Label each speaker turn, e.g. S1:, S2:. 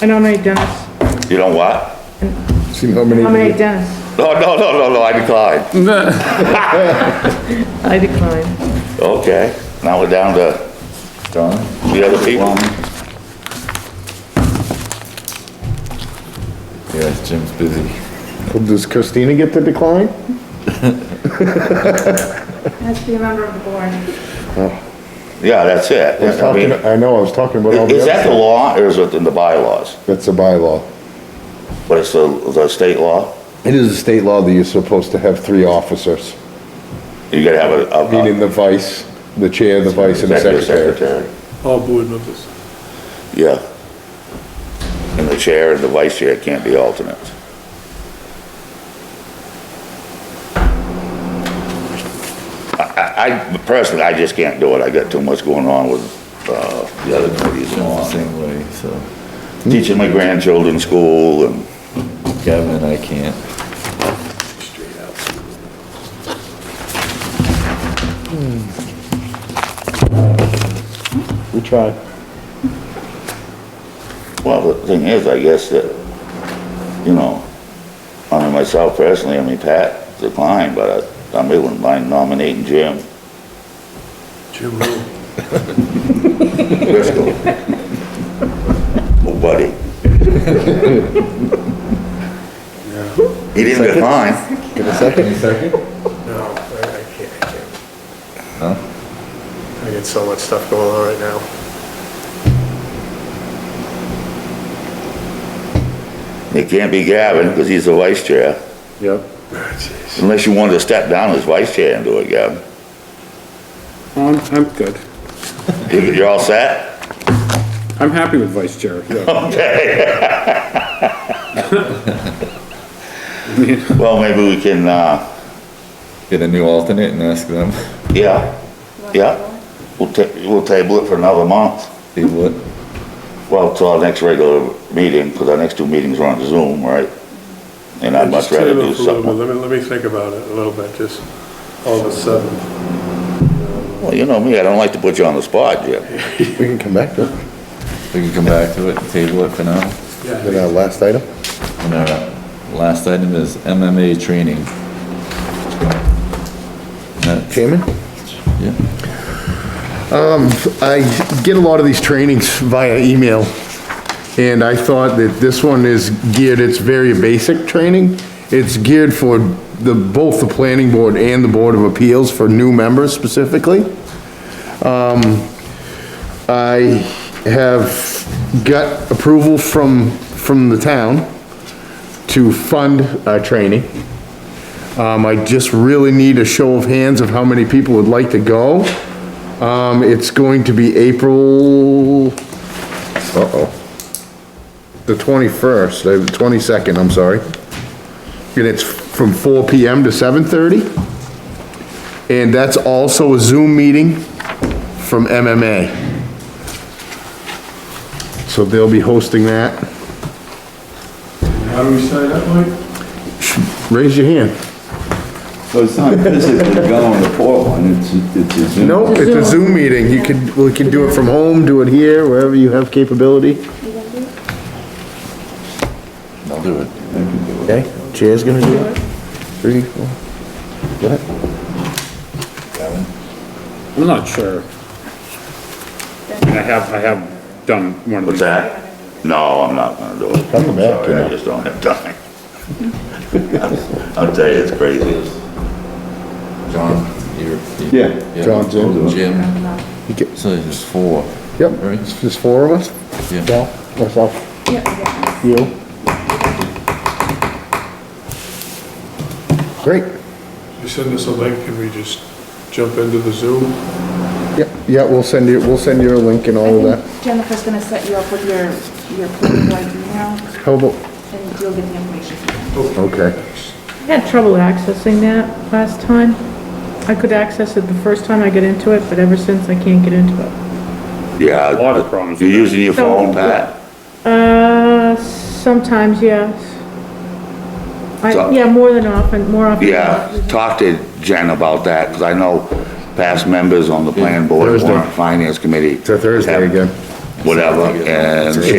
S1: I nominate Dennis.
S2: You know what?
S3: See how many.
S1: Nominate Dennis.
S2: No, no, no, no, no, I declined.
S1: I decline.
S2: Okay, now we're down to
S4: Done.
S2: the other people.
S4: Plum. Yeah, Jim's busy.
S3: Does Christina get to decline?
S1: Has to be a member of the board.
S2: Yeah, that's it.
S3: I was
S2: I mean,
S3: talking, I know, I was talking about all the
S2: Is that
S3: other.
S2: the law or is it in the bylaws?
S3: That's a bylaw.
S2: But it's the, the state law?
S3: It is a state law that you're supposed to have three officers,
S2: You gotta have a, a-
S3: meaning the vice, the chair, the vice, and the
S2: executive
S3: secretary.
S2: secretary.
S5: all board members.
S2: Yeah. And the chair and the vice chair can't be alternates. I, I- I, personally, I just can't do it. I got too much going on with, uh, the other committees and
S4: I'm the
S2: all.
S4: same way, so
S2: Teaching my grandchildren school and,
S4: Kevin, I can't.
S3: We tried.
S2: well, the thing is, I guess that, you know, I mean, myself personally, I mean, Pat declined, but I, I wouldn't mind nominating Jim
S5: Jim Rule.
S2: Driscoll. Oh, buddy. He didn't decline.
S3: Get a second?
S5: No, I I can't, I can't. I got so much stuff going on right now.
S2: It can't be Gavin, because he's the vice chair,
S3: Yep.
S5: Ah, jeez.
S2: unless you wanted to step down as vice chair and do it, Gavin.
S6: I'm, I'm good.
S2: You- You're all set?
S6: I'm happy with vice chair. yeah.
S2: Okay. Well, maybe we can, uh,
S4: Get a new alternate and ask them,
S2: yeah, yeah, we'll ta, we'll table it for another month.
S4: they what?
S2: Well, till our next regular meeting, because our next two meetings are on Zoom, right? And I'd much
S5: Just
S2: rather
S5: table
S2: do
S5: it for a little
S2: something.
S5: bit. Let me, let me think about it a little bit, just all of a sudden.
S2: Well, you know me, I don't like to put you on the spot, Jim.
S3: We can come back to it.
S4: We can come back to it, and table it for now.
S3: Then our last item.
S4: And our last item is MMA training. That-
S3: Chairman?
S4: yeah.
S3: Um, I get a lot of these trainings via email, and I thought that this one is geared, it's very basic training. It's geared for the, both the planning board and the Board of Appeals for new members specifically. Um, I have got approval from, from the town to fund our training. Um, I just really need a show of hands of how many people would like to go. Um, it's going to be April, uh-oh, the 21st, uh, the 22nd, I'm sorry. And it's from 4 PM to 7:30. And that's also a Zoom meeting from MMA. So they'll be hosting that.
S5: How do we sign up, Mike?
S3: Raise your hand.
S7: So it's not physically going to Portland, it's, it's a Zoom.
S3: Nope, it's a Zoom meeting. You can, we can do it from home, do it here, wherever you have capability.
S4: I'll do it.
S3: Okay, Chair's gonna do it. Three, four.
S6: I'm not sure. I mean, I have, I have done one of
S2: What's
S6: these.
S2: that? No, I'm not gonna do it.
S3: Come back,
S2: Sorry, I
S3: yeah.
S2: just don't have time. I'll tell you, it's crazy.
S4: John, you're.
S3: Yeah,
S4: yeah,
S3: John's in.
S4: Jim,
S3: You get-
S4: so there's four.
S3: Yep,
S4: Right.
S3: it's just four of us?
S4: Yeah.
S3: Dal, myself, you. Great,
S5: You send us a link and we just jump into the Zoom?
S3: yeah, yeah, we'll send you, we'll send you a link and all of
S8: I
S3: that.
S8: think Jennifer's gonna set you up with your, your planning board email,
S3: How about,
S8: and you'll get the information from them.
S3: okay,
S1: I had trouble accessing that last time. I could access it the first time I got into it, but ever since I can't get into it.
S2: Yeah.
S6: A lot of problems
S2: You're
S6: with
S2: using your
S1: So-
S2: phone, Pat?
S1: Uh, sometimes, yes. I,
S2: So-
S1: yeah, more than often, more often. than not.
S2: Yeah, talk to Jen about that, because I know past members on the plan board,
S3: Thursday.
S2: warrant finance committee.
S3: It's a Thursday
S2: have
S3: again.
S2: Whatever, and
S3: It's a-
S2: she